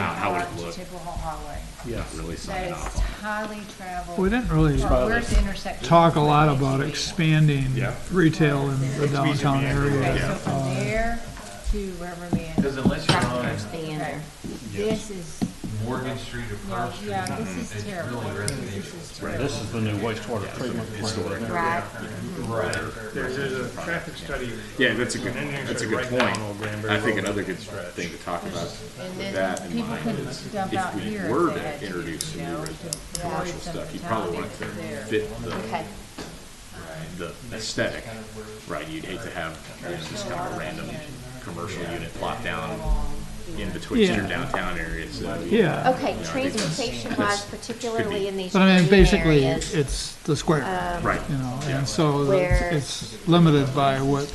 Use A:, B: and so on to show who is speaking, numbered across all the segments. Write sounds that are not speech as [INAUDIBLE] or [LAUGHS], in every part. A: out how it
B: To
A: looked.
B: Chippewa Highway.
C: Yes.
A: Really
B: That
A: sign
B: is
A: off.
B: highly traveled.
D: We didn't really
B: Well, Where's the intersection?
D: talk a lot about
B: Basically.
D: expanding
C: Yeah.
D: retail in the downtown
B: Okay, so
D: area.
B: from there to Rubber
E: Because
B: Man.
E: unless you're on
F: Tractors being
B: Okay.
F: there.
B: This is,
E: Morgan Street or
B: yeah,
E: Pearl Street,
B: yeah, this is
E: it's
B: terrible.
E: really
B: This
E: residential.
B: is terrible.
C: This is the new wastewater treatment plant.
F: Right,
E: Right.
G: There's, there's a traffic study.
A: Yeah, that's a good,
G: engineering
A: that's a
G: study
A: good
G: right
A: point.
G: now on Old Granbury
A: I think
G: Road.
A: another good thing to talk about
B: And
A: with that
B: then
A: in
B: people
A: mind.
B: couldn't dump out
A: we
B: here
A: were
B: if they
A: to
B: had to, you
A: introduce some new
B: know.
A: res-
B: to
A: commercial
B: avoid some
A: stuff, you probably want it to
B: fatalities there.
A: Fit the,
F: okay.
A: the aesthetic, right? You'd hate to have you know, just kind of a random commercial unit plopped down in between
D: Yeah.
A: your downtown areas, so.
D: Yeah,
F: Okay, transportation wise, particularly in these
D: but I mean,
F: green
D: basically,
F: areas,
D: it's the square,
A: Right,
D: you know, and so
F: Uh, Where-
D: it's it's limited by what is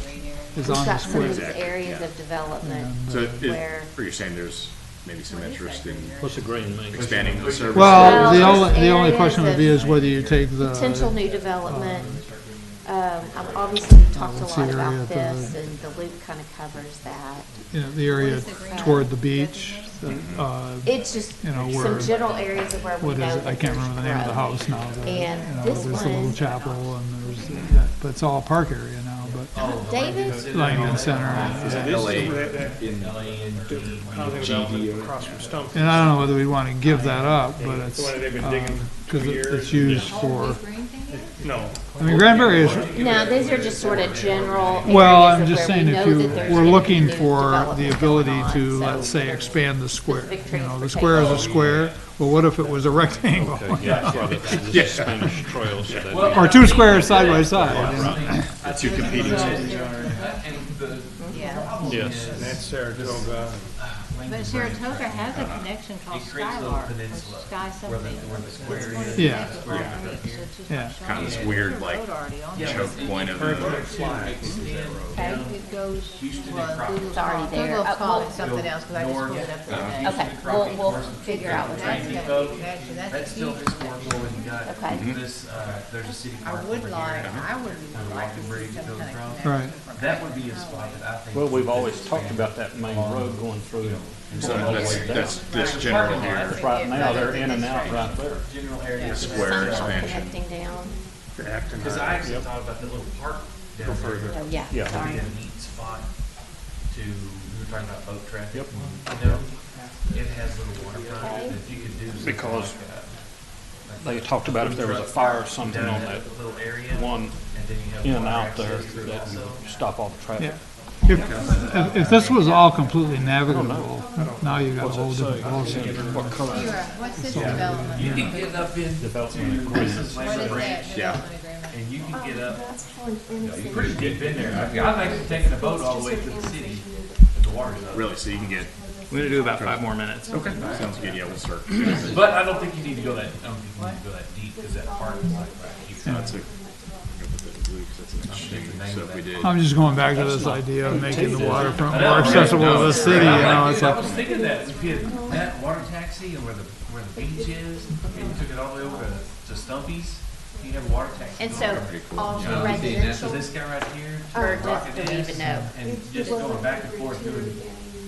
F: we've
D: on the
F: got some of these
D: square.
A: Exactly,
F: areas
A: yeah.
F: of development.
A: so, it-
F: Where-
A: or you're saying there's maybe some interest in
C: What's the green mean?
A: expanding the service?
D: Well, the
F: Well,
D: only, the only
F: areas
D: question would be
F: of
D: is whether you take the.
F: Potential new development, um, I've obviously talked a
D: What's the
F: lot
D: area
F: about
D: at the-
F: this and the loop kind of covers that.
D: you know, the area toward the beach, the, uh,
F: It's just
D: You know,
F: some
D: where-
F: general areas of where we
D: what
F: know
D: is it, I
F: that
D: can't
F: there's
D: remember the name of the
F: growth.
D: house now. the-
F: And
D: you know,
F: this
D: There's the little
F: one-
D: chapel and there's, that but it's all park area now,
F: Oh,
D: but
F: David,
D: Langdon Center. and-
A: Is that LA in
G: Housing development across from Stump.
D: And I don't know whether we want to give that up, but it's,
G: The one that they've been digging for
D: because
G: years.
D: it's used for,
G: No.
D: I mean, Granbury is,
F: no, these are just sort of general
D: well,
F: areas
D: I'm
F: of
D: just
F: where we
D: saying if
F: know
D: you,
F: that there's
D: we're
F: gonna be
D: looking
F: new
D: for the
F: development going
D: ability
F: on,
D: to,
F: so-
D: let's say, expand the square.
F: Specific
D: You know, the
F: transportation.
D: square is a square, well, what if it was a rectangle?
C: Yeah, so that- this is Spanish Trail, so that'd be-
D: Or two squares side by side, you know?
A: the two competing schools?
F: Yeah,
C: Yes.
G: That's Saratoga.
B: But Saratoga has a connection called Skylark, or Sky something.
D: Yeah, Yeah.
B: Yeah.
A: Kind of this weird, like, choke point of uh,
B: Okay, it goes, well, Google's
F: It's already there.
B: Google
F: Uh,
B: called
F: well-
B: it something else, because I just pulled it up the other day.
F: okay, we'll, we'll figure out what that
B: That's
F: is.
B: gonna be, actually,
E: That's
B: that's a
E: still
B: huge,
E: just more where we got
F: Okay.
E: this, uh, there's a city park
B: I
E: over
B: would
E: here.
B: like, I would like to
E: Bridge
B: see some
E: goes
B: kind
E: around.
B: of
D: Right.
B: connection from.
E: That would be a spot that I think.
C: Well, we've always talked about that main road going through.
A: So that's, that's this general here,
C: Right now, they're in and out right there.
E: General area.
A: square expansion.
F: Connecting down,
E: Because I actually thought about that little park down there.
F: oh, yeah,
C: Yeah.
E: Be
F: sorry.
E: a neat spot to, we were talking about boat traffic. Yep. You know, it has little waterfront, and if you could do something
C: Because-
E: like that.
C: They talked about if there was a fire or something
E: Down
C: on
E: that
C: that
E: little area.
C: one
E: and then you have
C: in and
E: water
C: out there,
E: access through
C: that
E: also.
C: would stop all the traffic.
D: yeah. If, if- if this was all completely navigable, now you've got a whole different ballgame.
C: What color
B: Sierra, what's this development?
E: You can get up in
C: development agreements?
B: What is that
A: Yeah.
B: development agreement?
E: and you can get up.
F: That's for an innocent.
E: Pretty deep in there. I've, I've actually taken a boat all the way to the city, but the water's up.
A: really, so you can get,
H: We're gonna do about five more minutes.
A: okay, sounds good, yeah, we'll start.
E: But I don't think you need to go that, I don't think you need to go that deep, because that park is like, you kind
A: That's a- So if we did,
D: I'm just going back to this idea of making the waterfront more accessible to the city, you know, it's
E: I was
D: like,
E: thinking that, if you had that water taxi and where the, where the beach is, and you took it all the way over to, to Stumpy's, you have a water taxi.
F: And
E: going
F: so all
E: around.
F: the
E: You Uh, see, that's
F: residential,
E: This guy right here,
F: or
E: where
F: just
E: Rocket
F: don't Oh, even
E: is,
F: know.
E: and just going back and forth doing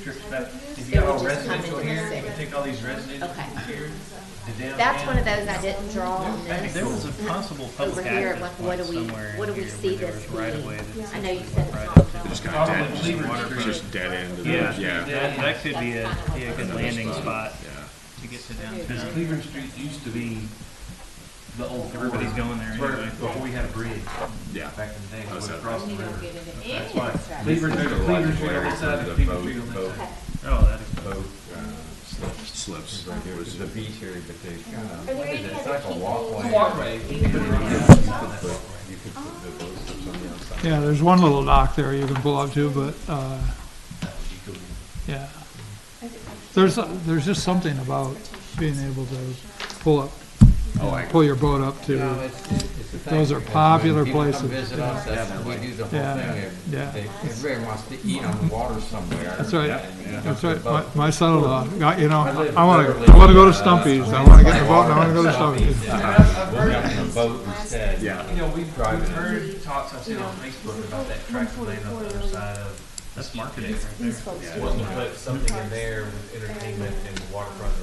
E: trips back. If you
F: It
E: got
F: would
E: all
F: just come
E: residential
F: into the
E: here, you
F: city.
E: take all these residential
F: Okay.
E: here, to downtown.
F: That's one of those I didn't draw on this.
H: There was a possible
F: Over
H: public
F: here,
H: access
F: like, what
H: point
F: do we-
H: somewhere
F: what do
H: in
F: we
H: here
F: see
H: where there
F: this
H: was right
F: being?
H: away that's.
F: I know you said it's
H: Right
F: not
H: up to
F: developed.
A: just kind of
E: Probably
A: dead,
E: Lever
A: it's
E: Street.
A: just dead end of the,
H: Yeah,
A: yeah.
H: that, that could be a, be a good landing spot
A: Yeah.
H: to get to downtown.
E: Because Cleveland Street used to be the old.
H: Everybody's going there
E: It's where-
H: anyway.
E: Before we had a bridge
A: Yeah.
E: back in the day, it was
A: Okay.
E: across the
B: You
E: river.
B: don't get into any
E: That's
B: of
E: why
B: that stuff.
E: Cleveland, there's a Cleveland Street on this side
A: The
E: and
A: boat-
E: Cleveland Street on
A: boat
E: this side.
H: Oh, that is.
A: boat, uh, slip- Slips. It was
I: There's a beach area, but there's kind of,
F: Are there any
I: it's
F: other
I: like a
F: people?
I: walkway.
E: It's a walkway.
I: You could put the boat slips on the outside.
D: yeah, there's one little dock there you can pull up to, but, uh, yeah. There's, there's just something about being able to pull up,
I: Oh, I-
D: pull your boat up to.
I: No, it's- it's the thing,
D: Those are
I: because
D: popular
I: when people come
D: places.
I: visit us, that's when we do the whole
D: Yeah,
I: thing. They-
D: yeah.
I: they- Everybody wants to eat on the water somewhere.
D: That's right.
I: and, you know,
D: That's
I: the
D: right. My,
I: boat.
D: my son-in-law, I- you know,
I: live
D: I want
I: literally,
D: to, I want to go to
I: uh,
D: Stumpy's. I want to
I: [LAUGHS]
D: get in the boat and I want to go to Stumpy's.
I: We'll get on the boat instead.
A: Yeah.
E: You know, we've, we've heard talks I've seen on Facebook about that track lane on the other side of
J: That's marketing right there.
K: These folks.
E: Wanting to put something in there with entertainment and waterfront